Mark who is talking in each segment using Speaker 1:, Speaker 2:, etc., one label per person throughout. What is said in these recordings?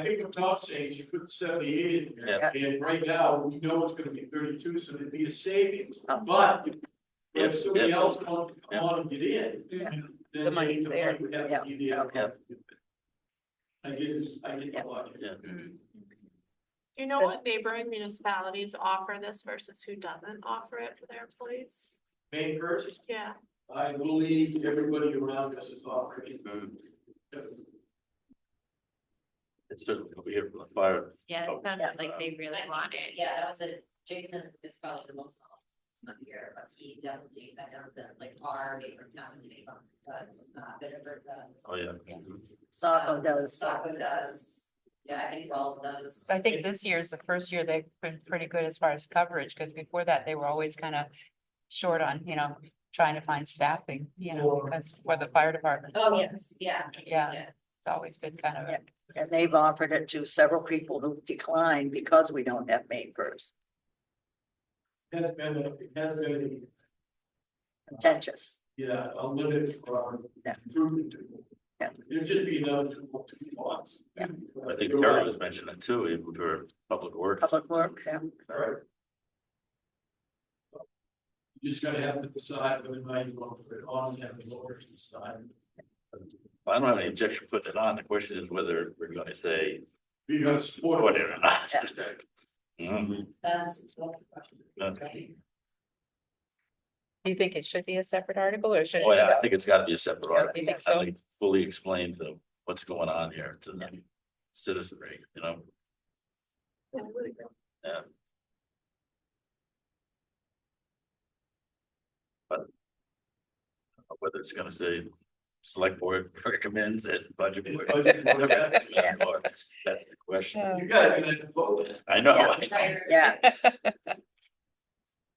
Speaker 1: I think the top saying you put seventy-eight in there, and right now, we know it's gonna be thirty-two, so there'd be a savings,
Speaker 2: Oh.
Speaker 1: but. if- If
Speaker 3: Yep,
Speaker 1: somebody
Speaker 3: yep.
Speaker 1: else wants to
Speaker 3: Yep.
Speaker 1: come on and get in.
Speaker 2: Yeah.
Speaker 1: then
Speaker 2: The money's
Speaker 1: money
Speaker 2: there.
Speaker 1: would have to
Speaker 2: Yep.
Speaker 1: be there.
Speaker 2: Okay.
Speaker 1: I get, this- I get the
Speaker 2: Yep.
Speaker 1: logic.
Speaker 3: Yeah.
Speaker 4: Do you know
Speaker 2: But-
Speaker 4: what neighboring municipalities offer this versus who doesn't offer it for their employees?
Speaker 1: Main first,
Speaker 4: Yeah,
Speaker 1: I believe everybody around us is offering.
Speaker 3: Mm-hmm. It's just over here from the fire.
Speaker 5: Yeah,
Speaker 3: Oh,
Speaker 5: it sounded like they really
Speaker 6: I think-
Speaker 5: want it.
Speaker 6: Yeah, that was a, Jason is probably the most, knowledgeable. it's not here, but he definitely, I know that like our neighbor, not the neighbor, does, uh, Bitterberg does.
Speaker 3: Oh, yeah.
Speaker 6: Yeah.
Speaker 2: Saco does.
Speaker 6: Saco does, yeah, I think Wells does.
Speaker 5: I think this year is the first year they've been pretty good as far as coverage, because before that, they were always kind of short on, you know, trying to find staffing, you know,
Speaker 1: Or-
Speaker 5: because for the fire department,
Speaker 6: Oh, yes, yeah.
Speaker 5: Yeah. it's always been kind of. a-
Speaker 2: And they've offered it to several people who declined because we don't have May first,
Speaker 1: Has been, a- has been,
Speaker 2: contentious.
Speaker 1: yeah, a limit for our
Speaker 2: Yeah.
Speaker 1: group.
Speaker 2: Yeah.
Speaker 1: There'd just be another two, two lots.
Speaker 2: Yeah.
Speaker 3: I think Carrie was mentioning it too, even for public work.
Speaker 2: Public works, yeah.
Speaker 1: Alright. You just gotta have to decide whether or not you want to put it on, and have the lawyers decide.
Speaker 3: I don't have any objection putting it on. The question is whether we're gonna say,
Speaker 1: You're gonna support
Speaker 3: what it or not.
Speaker 1: Yeah.
Speaker 3: Mhm.
Speaker 6: That's, that's the question.
Speaker 3: Okay.
Speaker 5: Do you think it should be a separate article or should? it
Speaker 3: Oh, yeah,
Speaker 5: be
Speaker 3: I think it's gotta be a separate
Speaker 5: Yeah,
Speaker 3: article.
Speaker 5: you think
Speaker 3: I
Speaker 5: so?
Speaker 3: think Fully explain to what's going on here to the citizenry, you know?
Speaker 4: I would agree.
Speaker 3: Yeah. But. Whether it's gonna say, select board recommends it, budget board.
Speaker 1: it.
Speaker 3: That's more- that's the question.
Speaker 1: You guys are gonna have to vote it.
Speaker 3: I know.
Speaker 2: Yeah.
Speaker 3: I know.
Speaker 6: Right.
Speaker 2: Yeah,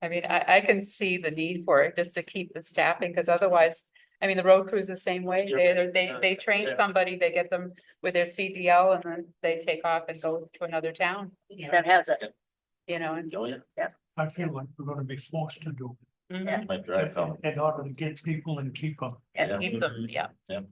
Speaker 5: I mean, I, I can see the need for it just to keep the staffing, because otherwise, I mean, the road crews the same way.
Speaker 3: Yeah.
Speaker 5: They, they, they train
Speaker 3: Yeah.
Speaker 5: somebody, they get them with their CDL and then they take off and go to another town,
Speaker 2: that has it.
Speaker 5: you know, and.
Speaker 3: Oh, yeah,
Speaker 7: I feel like we're gonna be forced to do
Speaker 3: my drive home.
Speaker 7: it in order to get people and keep them.
Speaker 3: Yeah. Mm-hmm.
Speaker 5: And keep them, yeah.
Speaker 4: And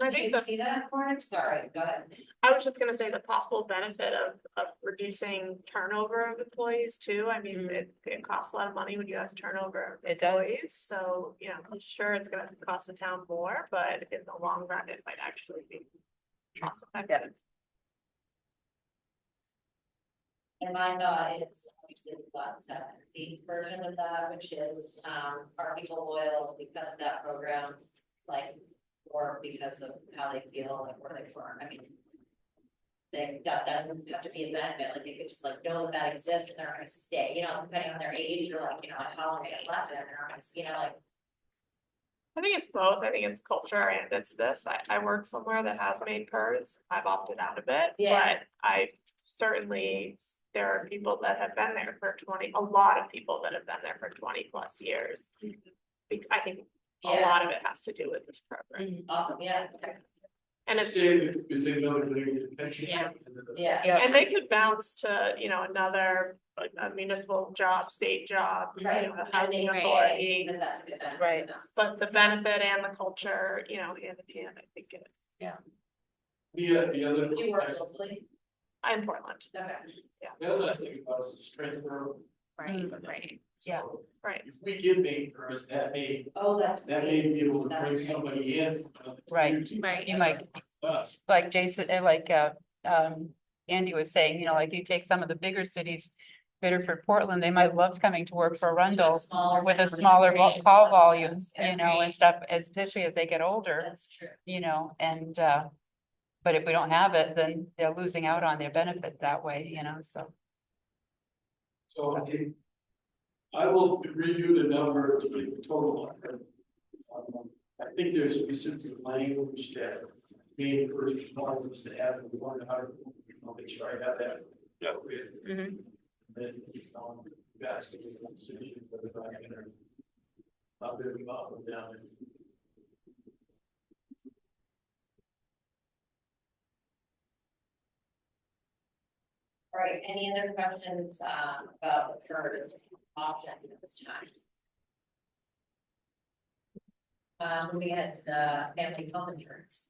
Speaker 4: I
Speaker 6: Did you
Speaker 4: think the,
Speaker 6: see that, Warren? Sorry, go ahead.
Speaker 4: I was just gonna say the possible benefit of, of reducing turnover of employees too. I mean,
Speaker 5: Mm.
Speaker 4: it, it costs a lot of money when you have turnover. of
Speaker 5: It does.
Speaker 4: employees. So, you know, I'm sure it's gonna cost the town more, but in the long run, it might actually be cost effective.
Speaker 6: And my thought is, obviously, the last step, the version of that, which is, um, are people loyal because of that program? Like, or because of how they feel, like, where they form, I mean. They, that doesn't have to be a benefit, like, they could just like know that that exists and they're gonna stay, you know, depending on their age or like, you know, how long they got left, and they're not gonna, you know, like.
Speaker 4: I think it's both. I think it's culture and it's this. I, I work somewhere that has made purrs. I've opted out of it.
Speaker 6: Yeah.
Speaker 4: But I certainly, s- there are people that have been there for twenty, a lot of people that have been there for twenty plus years. Be- I think a
Speaker 6: Yeah.
Speaker 4: lot of it has to do with this program.
Speaker 6: Awesome, yeah, okay,
Speaker 4: And it's,
Speaker 1: Save it, because they know they're gonna get a pension.
Speaker 6: Yeah.
Speaker 1: and then-
Speaker 6: yeah.
Speaker 5: Yeah.
Speaker 4: and they could bounce to, you know, another like, a municipal job, state job, you
Speaker 6: Right,
Speaker 4: know, a
Speaker 6: and they
Speaker 4: housing
Speaker 6: stay,
Speaker 4: authority.
Speaker 6: because that's a good benefit.
Speaker 5: Right.
Speaker 6: enough.
Speaker 4: But the benefit and the culture, you know, hand in hand, I think it,
Speaker 1: The, uh, the other.
Speaker 6: Do you work locally?
Speaker 4: I'm Portland,
Speaker 6: Okay,
Speaker 1: The other thing about it is it's transferable.
Speaker 5: Right,
Speaker 1: right,
Speaker 5: yeah.
Speaker 1: So
Speaker 4: right?
Speaker 1: If we give main first, that may,
Speaker 6: oh, that's
Speaker 1: that may
Speaker 6: great,
Speaker 1: be able to
Speaker 6: That's
Speaker 1: bring
Speaker 6: great.
Speaker 1: somebody in. from another
Speaker 5: Right,
Speaker 1: community.
Speaker 6: right,
Speaker 5: You might,
Speaker 1: Us.
Speaker 5: like Jason, uh, like, uh, um, Andy was saying, you know, like you take some of the bigger cities, Bitterford, Portland, they might love coming to work for Arundel
Speaker 6: Smaller
Speaker 5: with a
Speaker 6: town,
Speaker 5: smaller
Speaker 6: right,
Speaker 5: vol- call
Speaker 6: less
Speaker 5: volume,
Speaker 6: towns, yeah.
Speaker 5: you know, and stuff, especially as they get older,
Speaker 6: That's true.
Speaker 5: you know, and, uh, but if we don't have it, then they're losing out on their benefit that way, you know, so.
Speaker 1: So I- I will review the number to be the total. Um, I think there's specific language that being first responders to have in one hundred, I'll make sure I have that.
Speaker 3: Yeah.
Speaker 6: Mm-hmm.
Speaker 1: Then, um, that's the decision for the back end. Up there, up and down.
Speaker 6: All right, any other questions, um, about the PERS option at this time? Um, we had the family health insurance.